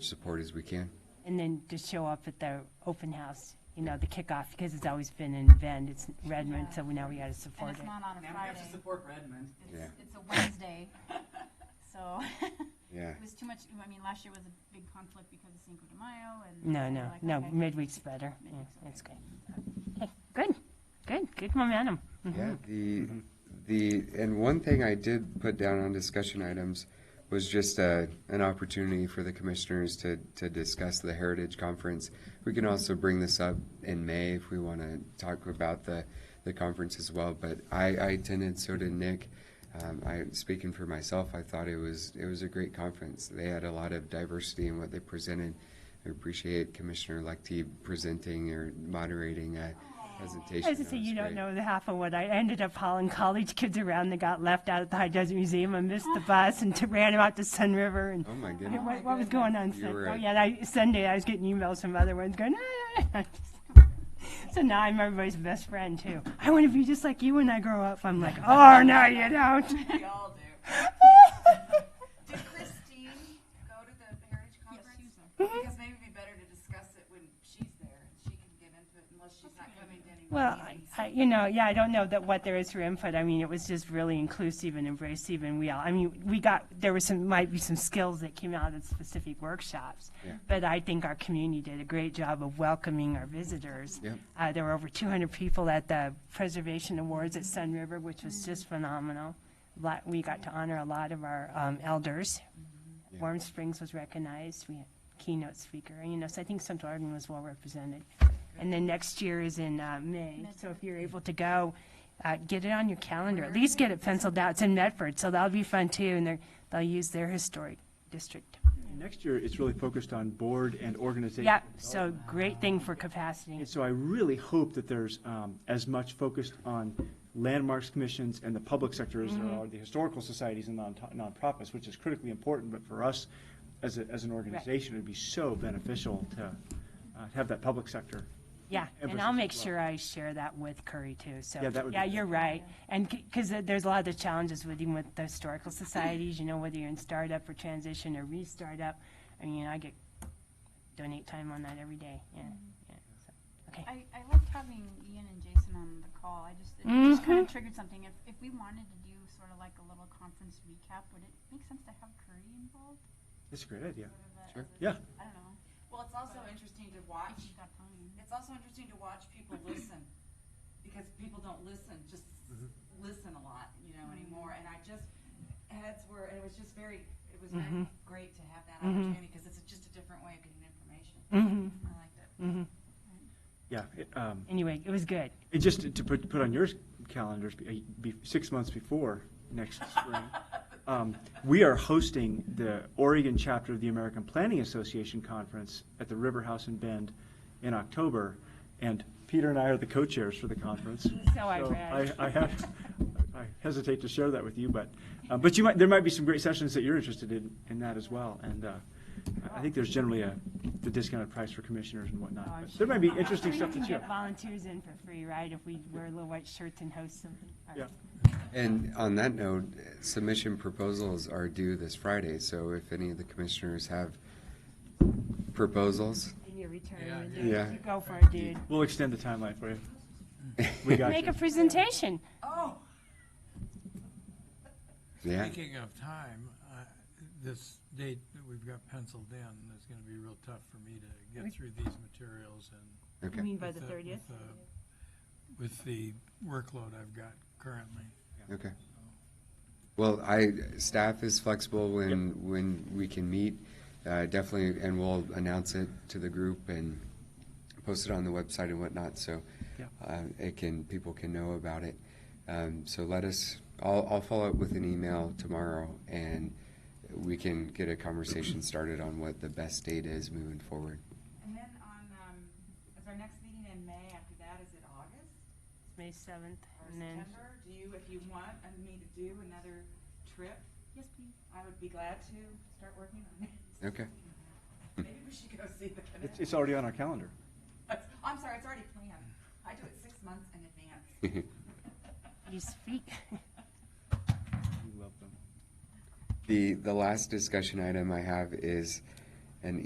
support as we can. And then just show up at the open house, you know, the kickoff, because it's always been in Bend, it's Redmond, so we now we gotta And support it's it. not on a Now we Friday. have to support Redmond. Yeah. It's, it's a Wednesday. So Yeah. it was too much, I mean, last year was a big conflict because of Cinco de Mayo and. No, and no, like, no, okay. midweek's better, yeah, Midweek's that's good. Okay, Good, good, good momentum. Mm-hmm. Yeah, the, the, and one thing I did put down on discussion items was just uh an opportunity for the commissioners to, to discuss the Heritage Conference. We can also bring this up in May if we want to talk about the, the conference as well, but I, I attended, so did Nick. Um, I, speaking for myself, I thought it was, it was a great conference. They had a lot of diversity in what they presented. I appreciate Commissioner Lectie presenting or moderating a presentation. I was That just saying, you was don't great. know the half of what I I ended up hauling college kids around that got left out at the High Desert Museum. I missed the bus and t- ran them out to Sun River and Oh, my I goodness. mean, what, what was going on? You Sun- were oh a- yeah, and I, Sunday I was getting emails from other ones going. "Ah." so now I'm everybody's best friend too. I want to be just like you when I grow up. I'm like, oh no, you don't. We all do. Did Christine go to the Heritage Conference? she was Because maybe it'd be better to discuss it when she's there and she can get into it unless she's not coming to any Well, I, meetings. I, you know, yeah, I don't know that what there is for input. I mean, it was just really inclusive and embracive, and we all. I mean, we got there was some might be some skills that came out of specific workshops, Yeah. but I think our community did a great job of welcoming our visitors. Yep. Uh, there were over 200 people at the Preservation Awards at Sun River, which was just phenomenal. Lot, we got to honor a lot of our um, elders. Warm Springs was recognized. We had keynote speaker, and you know, so I think Central Arden was well represented. And then next year is in uh, May, so if you're able to go, uh, get it on your calendar. At least get it penciled out. It's in Medford, so that'll be fun too, and they're, they'll use their historic district. Next year, it's really focused on board and organization. Yeah, so great thing for capacity. And so I really hope that there's um, as much focused on landmarks commissions and the public sector as Mm-hmm. there are the historical societies and non nonprofits, which is critically important, but for us as, a- as an organization, it'd be so beneficial to uh, have that public sector. Yeah, and emphasis I'll make as well. sure I share that with Curry too, so. Yeah, that would be good. you're right, and, because there's a lot of the challenges with, even with the historical societies, you know, whether you're in startup or transition or re-startup, I mean, I get, donate time on that every day, yeah, yeah, so, okay. I, I loved having Ian and Jason on the call. I just, it just kind of triggered something. If, if we wanted to do sort of like a little conference recap, would it make sense to have Curry involved? That's a great idea. Sure. Sort of a- as a- Yeah. I don't know. Well, it's also interesting to watch, If she's got time. it's also interesting to watch people listen. Because people don't listen, just Mm-hmm. listen a lot, you know, anymore. And I just, heads were, and it was just very, it was very Mm-hmm. great to have that opportunity because it's just a different way of getting information. Mm-hmm, Mm-hmm. I liked it. Yeah. it, um, Anyway, it was good. And just to- to put, put on your calendars, be, be, six months before next spring, um, we are hosting the Oregon chapter of the American Planning Association Conference at the River House in Bend in October. And Peter and I are the co-chairs for the conference. So I read. I, I have, I hesitate to share that with you, but, uh, but you might, there might be some great sessions that you're interested in, in that as well. And, uh, I- I think there's generally a, the discounted price for commissioners and whatnot. Oh, I'm but There might be interesting You stuff can to share. get volunteers in for free, right, if we wear little white shirts and host uh, something. All right. And on that note, submission proposals are due this Friday, so if any of the commissioners have proposals, In your Yeah, return, yeah. you go for it, dude. We'll extend the timeline for you. We got Make you. a presentation. Oh, yeah, Speaking of time, uh, this date that we've got penciled in is going to be real tough for me to get through these materials and. You okay, mean by the with thirtieth? with the- With the workload I've got currently. okay. Well, I, staff is flexible when, when we can meet, uh, definitely, and we'll announce it to the group and post it on the website and whatnot, so Yeah. uh, it can, people can know about it. Um, So let us, I'll, I'll follow up with an email tomorrow, and we can get a conversation started on what the best date is moving forward. and then on, um, is our next meeting in May, after that, is it August? May seventh, or and then. September, do you, if you want and me to do another trip, Yes, please. I would be glad to start working on it. Okay, Maybe we should go see the It's, canal. it's already on our calendar. I'm sorry, it's already planned. I do it six months in advance. You speak. We love them. the, the last discussion item I have is an